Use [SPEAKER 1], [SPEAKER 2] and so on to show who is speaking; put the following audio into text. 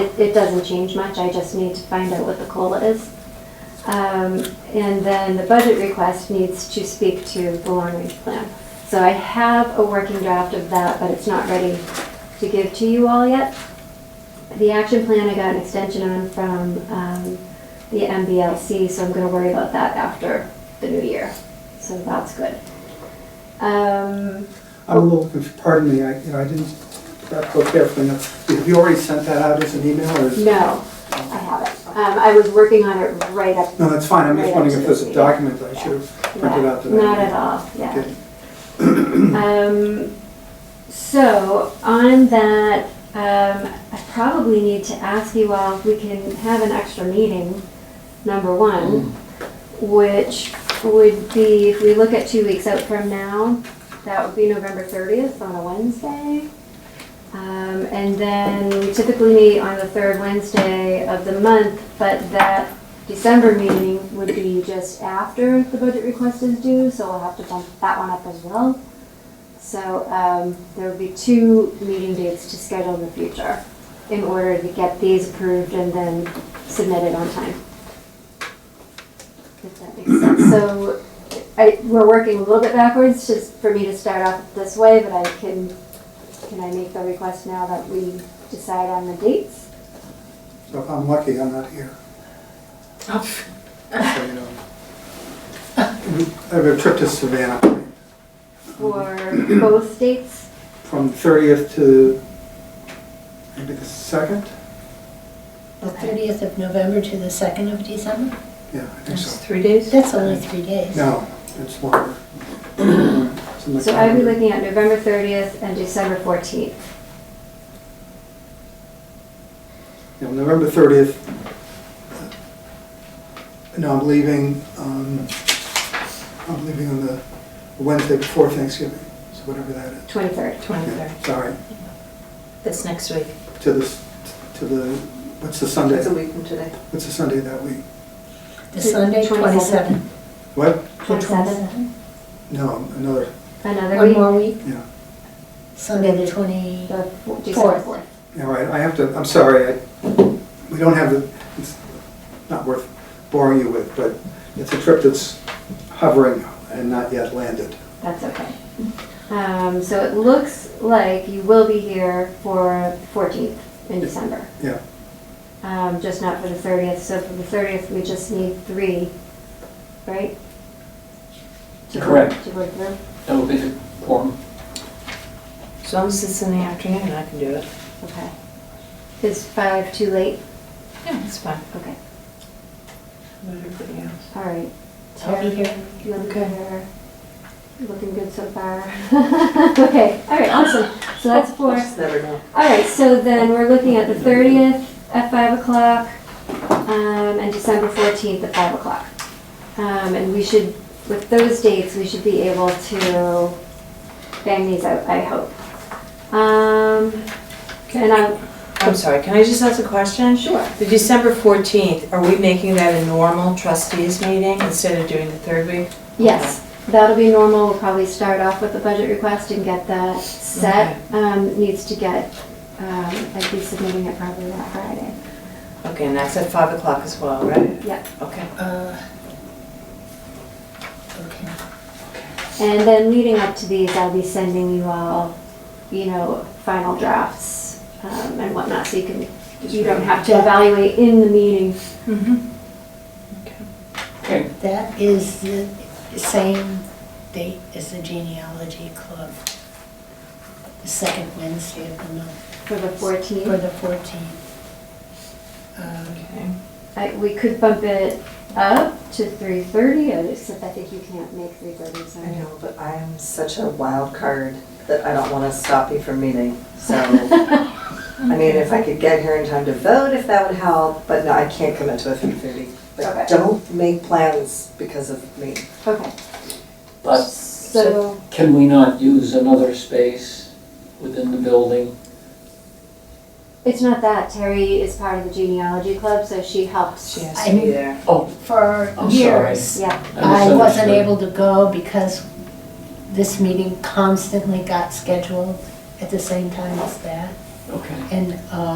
[SPEAKER 1] It, it doesn't change much, I just need to find out what the COLA is. Um, and then the budget request needs to speak to the long range plan. So I have a working draft of that, but it's not ready to give to you all yet. The action plan I got an extension on from, um, the MBLC, so I'm gonna worry about that after the new year, so that's good. Um,
[SPEAKER 2] I'm a little, conf- pardon me, I, you know, I didn't prepare for enough. Have you already sent that out as an email or? is-
[SPEAKER 1] no, I haven't. Um, I was working on it right up
[SPEAKER 2] No, that's fine, I'm just wondering if there's a document that I should have printed
[SPEAKER 1] Yeah,
[SPEAKER 2] out today.
[SPEAKER 1] Not at all, yeah.
[SPEAKER 2] Okay.
[SPEAKER 1] Um, so on that, um, I probably need to ask you all if we can have an extra meeting, number one, Mm. which would be, if we look at two weeks out from now, that would be November thirtieth on a Wednesday. Um, and then we typically meet on the third Wednesday of the month, but that December meeting would be just after the budget request is due, so we'll have to bump that one up as well. So um, there will be two meeting dates to schedule in the future in order to get these approved and then submitted on time. If that makes sense. So I, we're working a little bit backwards, just for me to start off this way, but I can, can I make the request now that we decide on the dates?
[SPEAKER 2] So if I'm lucky, I'm not here. So, you know. I have a trip to Savannah planned,
[SPEAKER 1] For both dates?
[SPEAKER 2] from thirtieth to maybe the second?
[SPEAKER 3] The 30th of November to the 2nd of December?
[SPEAKER 2] Yeah, I think
[SPEAKER 4] That's
[SPEAKER 2] so.
[SPEAKER 4] three days?
[SPEAKER 3] That's only three days.
[SPEAKER 2] No, it's longer. It's in the
[SPEAKER 1] So I'd be
[SPEAKER 2] calendar.
[SPEAKER 1] looking at November 30th and December 14th.
[SPEAKER 2] you know, November 30th, no, I'm leaving, um, I'm leaving on the Wednesday before Thanksgiving, so whatever that is.
[SPEAKER 1] 23rd.
[SPEAKER 4] Twenty-third.
[SPEAKER 2] Sorry,
[SPEAKER 4] That's next week.
[SPEAKER 2] to the, to the, what's the Sunday?
[SPEAKER 5] That's a week from today.
[SPEAKER 2] What's the Sunday that week?
[SPEAKER 3] The Sunday,
[SPEAKER 1] 27th.
[SPEAKER 3] 27th.
[SPEAKER 2] What?
[SPEAKER 3] The
[SPEAKER 1] 27th,
[SPEAKER 3] 27th.
[SPEAKER 2] No, another,
[SPEAKER 1] another
[SPEAKER 3] One
[SPEAKER 1] week,
[SPEAKER 3] more week,
[SPEAKER 2] yeah,
[SPEAKER 3] Sunday the 20,
[SPEAKER 1] the f- December
[SPEAKER 3] Fourth.
[SPEAKER 1] 4th.
[SPEAKER 2] yeah, right, I have to, I'm sorry, I, we don't have the, it's not worth boring you with, but it's a trip that's hovering and not yet landed.
[SPEAKER 1] That's okay. Um, So it looks like you will be here for 14th in December,
[SPEAKER 2] Yeah,
[SPEAKER 1] um, just not for the 30th. So for the 30th, we just need three, right? To go-
[SPEAKER 6] Correct.
[SPEAKER 1] To go through.
[SPEAKER 6] That would be the quorum.
[SPEAKER 4] As long as it's in the afternoon, I can do it.
[SPEAKER 1] Okay. Is five too late?
[SPEAKER 4] Yeah, it's fine.
[SPEAKER 1] Okay,
[SPEAKER 4] Everybody else.
[SPEAKER 1] all right.
[SPEAKER 3] I'll be here.
[SPEAKER 1] You're looking
[SPEAKER 4] Okay.
[SPEAKER 1] better. Looking good so far. Okay, all right, awesome. So that's four.
[SPEAKER 5] Just never know.
[SPEAKER 1] All right, so then we're looking at the 30th at 5 o'clock um, and December 14th at 5 o'clock. Um, And we should, with those dates, we should be able to bang these out, I hope. Um, And I'm,
[SPEAKER 4] I'm sorry, can I just ask a question?
[SPEAKER 1] Sure.
[SPEAKER 4] The December 14th, are we making that a normal trustees meeting instead of doing the third week?
[SPEAKER 1] Yes, that'll be normal, we'll probably start off with a budget request and get that set. Um, Needs to get, um, I'd be submitting it probably that Friday.
[SPEAKER 4] Okay, and that's at 5 o'clock as well, right?
[SPEAKER 1] Yeah,
[SPEAKER 4] Okay.
[SPEAKER 3] Uh, Okay.
[SPEAKER 1] and then leading up to these, I'll be sending you all, you know, final drafts um, and whatnot, so you can, you don't have to evaluate in the meeting.
[SPEAKER 4] Mm-hmm.
[SPEAKER 6] Okay,
[SPEAKER 3] That is the same date as the genealogy club. The second Wednesday of the month,
[SPEAKER 1] For the
[SPEAKER 3] for
[SPEAKER 1] 14th,
[SPEAKER 3] the 14th. Uh,
[SPEAKER 4] Okay.
[SPEAKER 1] I- we could bump it up to 3:30, except I think you can't make 3:30,
[SPEAKER 5] I
[SPEAKER 1] sorry.
[SPEAKER 5] know, but I am such a wild card that I don't want to stop you from meeting. So, I mean, if I could get here in time to vote, if that would help, but no, I can't commit to a three thirty.
[SPEAKER 1] Okay.
[SPEAKER 5] But don't make plans because of me.
[SPEAKER 1] Okay,
[SPEAKER 6] but
[SPEAKER 1] so.
[SPEAKER 6] can we not use another space within the building?
[SPEAKER 1] It's not that. Terry is part of the genealogy club, so she helps.
[SPEAKER 4] She has to be there.
[SPEAKER 6] Oh,
[SPEAKER 3] For
[SPEAKER 6] I'm sorry.
[SPEAKER 3] years,
[SPEAKER 1] Yeah,
[SPEAKER 3] I wasn't
[SPEAKER 6] misunderstood.
[SPEAKER 3] able to go because this meeting constantly got scheduled at the same time as that.
[SPEAKER 6] Okay.
[SPEAKER 3] And uh,